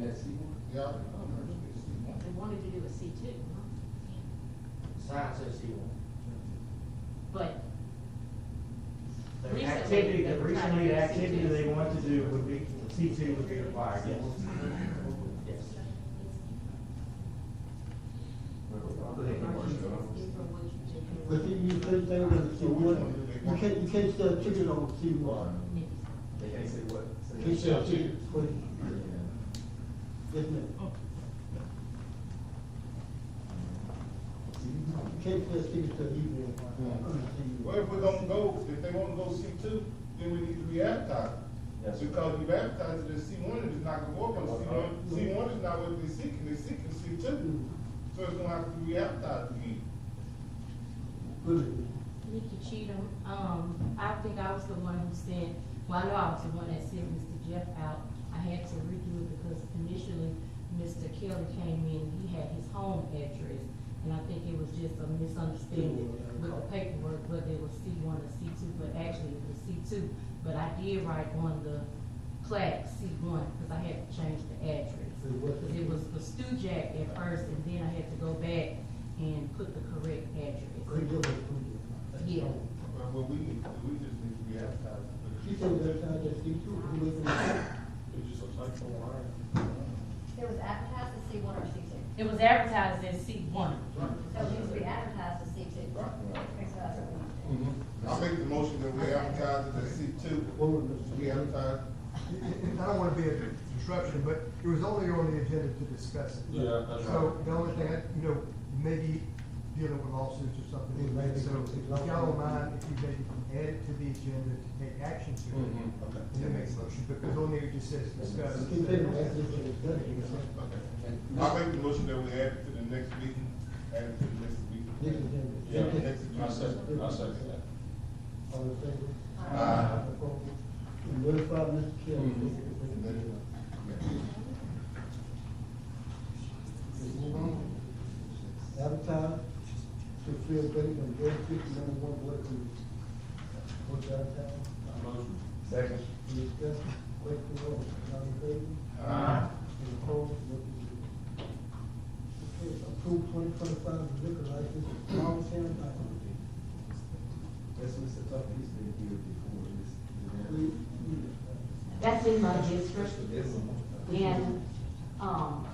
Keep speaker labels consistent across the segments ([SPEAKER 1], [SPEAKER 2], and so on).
[SPEAKER 1] that C one?
[SPEAKER 2] Yeah.
[SPEAKER 3] They wanted to do a C two,
[SPEAKER 4] Sign says C one.
[SPEAKER 3] but
[SPEAKER 4] The
[SPEAKER 3] Recently,
[SPEAKER 4] activity,
[SPEAKER 3] they
[SPEAKER 4] the
[SPEAKER 3] were trying to
[SPEAKER 4] recently,
[SPEAKER 3] do
[SPEAKER 4] the activity
[SPEAKER 3] C2.
[SPEAKER 4] they want to do would be, C two would be required, yes. Yes.
[SPEAKER 5] But you, you can't say that it's C one, you can't, you can't sell chicken on C one.
[SPEAKER 1] They can't say what. say-
[SPEAKER 2] They sell chicken.
[SPEAKER 1] Yeah.
[SPEAKER 5] Yes, ma'am. You can't sell chicken till evening.
[SPEAKER 2] Well, if we're gonna go, if they wanna go C two, then we need to be advertised.
[SPEAKER 4] Yes.
[SPEAKER 2] Because you advertise it as C one, and it's not gonna work on C one, C one is not what they seeking, they seeking C two. So it's gonna have to be advertised again.
[SPEAKER 5] Good.
[SPEAKER 3] Nikki Cheatham, um, I think I was the one who said, well, I know I was the one that sent Mr. Jeff out. I had to redo it because initially, Mr. Kelly came in, he had his home address, and I think it was just a misunderstanding with the paperwork, whether it was C one or C two, but actually it was C two. But I did write on the plaque C one, because I had to change the address.
[SPEAKER 5] It was-
[SPEAKER 3] Because it was for Stujac at first, and then I had to go back and put the correct address.
[SPEAKER 5] Great deal of food.
[SPEAKER 3] Yeah.
[SPEAKER 2] But what we need, to do, we just need to be advertised.
[SPEAKER 5] She said that, uh, that C two, you live in
[SPEAKER 2] It's just a typo
[SPEAKER 6] There was advertised as C one or C two.
[SPEAKER 3] It was advertised as C one.
[SPEAKER 6] So it needs to be advertised as C two. Okay, so that's what we need to do.
[SPEAKER 2] I make the motion that we advertise it as C two,
[SPEAKER 5] What was it?
[SPEAKER 2] we advertise.
[SPEAKER 7] I don't want to be a disruption, but it was only on the agenda to discuss it.
[SPEAKER 2] Yeah, that's
[SPEAKER 7] So the only thing, I- you know, maybe dealing with lawsuits or
[SPEAKER 5] It may be-
[SPEAKER 7] something, so if y'all don't mind, if you maybe can add it to the agenda to take action to it.
[SPEAKER 2] Mm-hmm, Okay.
[SPEAKER 7] And then make a motion, because on there it just says discuss.
[SPEAKER 5] She said that's just a study.
[SPEAKER 2] Okay.
[SPEAKER 1] And-
[SPEAKER 2] I make the motion that we add it to the next meeting, add it to the next meeting.
[SPEAKER 5] Next agenda.
[SPEAKER 2] Yeah, next agenda.
[SPEAKER 5] I second- I second
[SPEAKER 2] that.
[SPEAKER 5] All in favor?
[SPEAKER 2] Aye.
[SPEAKER 5] Opposed? And notify Mr. Kelly.
[SPEAKER 2] And then-
[SPEAKER 5] Advertise to fill vacant and vacancy number one board committee. What's advertised?
[SPEAKER 4] Second.
[SPEAKER 5] Any discussion? Question or vote? All in favor?
[SPEAKER 2] Aye.
[SPEAKER 5] Any opposed? Motion carries. Okay, approve twenty twenty-five liquor license, Long Sam Liquor.
[SPEAKER 1] That's what Mr. Tucker used to do before this.
[SPEAKER 5] We, we,
[SPEAKER 3] That's in my district,
[SPEAKER 1] This one.
[SPEAKER 3] and, um,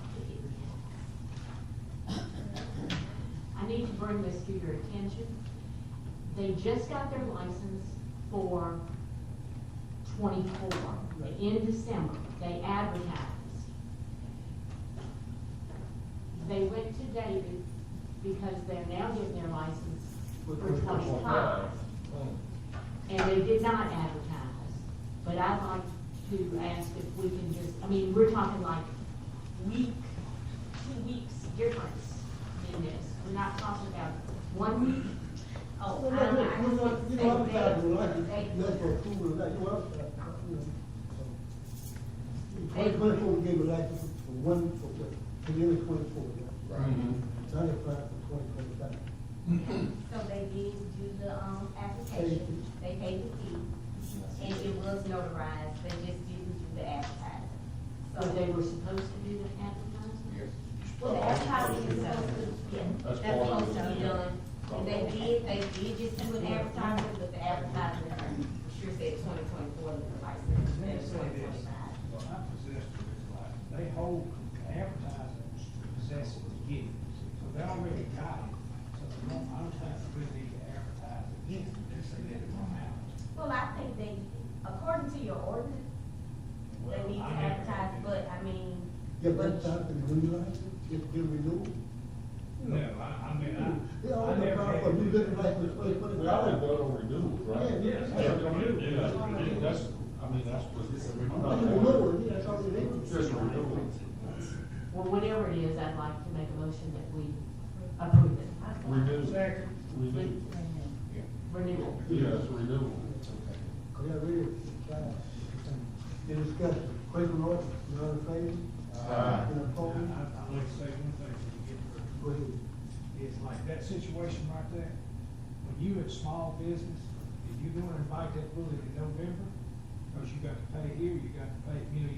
[SPEAKER 3] I need to bring this to your attention. They just got their license for twenty-four, in December, they advertised. They went to David because they're now getting their license for twenty-five. And they did not advertise, but I'd like to ask if we can just, I mean, we're talking like week, two weeks difference in this. We're not talking about one week. Oh,
[SPEAKER 5] Well,
[SPEAKER 3] I, I
[SPEAKER 5] look, look,
[SPEAKER 3] just
[SPEAKER 5] you know,
[SPEAKER 3] want to
[SPEAKER 5] you
[SPEAKER 3] say
[SPEAKER 5] know, I'm glad you like
[SPEAKER 3] that
[SPEAKER 5] it.
[SPEAKER 3] they-
[SPEAKER 5] That's for approval, like, you know, I'm, you know.
[SPEAKER 3] They-
[SPEAKER 5] Twenty twenty-four, we gave a license for one, for, for nearly twenty-four, yeah. Now they're applying for twenty twenty-five.
[SPEAKER 6] So they did do the, um, application, they paid the fee, and it was notarized, they just didn't do the advertising.
[SPEAKER 3] So they
[SPEAKER 6] So,
[SPEAKER 3] were supposed to do the advertising?
[SPEAKER 2] Yes.
[SPEAKER 6] well, the advertising is supposed to, yeah, that's supposed to be done. And they did, they did just do an advertisement, but the advertisement, sure said twenty twenty-four, the license, that's twenty twenty-five.
[SPEAKER 8] Well, I possess it, it's like, they hold advertisements to possess it again, so they already got it, so they don't, I don't think we need to advertise again, unless they let it run out.
[SPEAKER 6] Well, I think they, according to your ordinance, they need to
[SPEAKER 8] Well, I never-
[SPEAKER 6] advertise, but I mean.
[SPEAKER 5] Yeah, but
[SPEAKER 6] but-
[SPEAKER 5] that's the new license, it's been renewed.
[SPEAKER 8] No, I, I mean, I.
[SPEAKER 5] They all
[SPEAKER 8] I never
[SPEAKER 5] apply
[SPEAKER 8] had-
[SPEAKER 5] for new liquor license, twenty twenty-five.
[SPEAKER 2] on renewal,
[SPEAKER 5] Yeah, yeah.
[SPEAKER 2] That's what they do. That's, I mean, that's what.
[SPEAKER 1] It's a
[SPEAKER 5] That's the new one, yeah, that's all they did.
[SPEAKER 2] Just a renewal.
[SPEAKER 3] Well, whatever it is, I'd like to make a motion that we approve it.
[SPEAKER 2] Renewal. Renewal.
[SPEAKER 3] Renewal.
[SPEAKER 2] Yeah, it's renewal.
[SPEAKER 5] Yeah, we, any discussion, question or vote? you know, in favor?
[SPEAKER 2] Aye.
[SPEAKER 5] Any
[SPEAKER 8] I,
[SPEAKER 5] opposed?
[SPEAKER 8] I'd like to say one thing when you get to it.
[SPEAKER 5] Go ahead.
[SPEAKER 8] It's like that situation right there, when you in small business, if you're gonna invite that bully in November, cause you got to pay here, you got to pay, you know,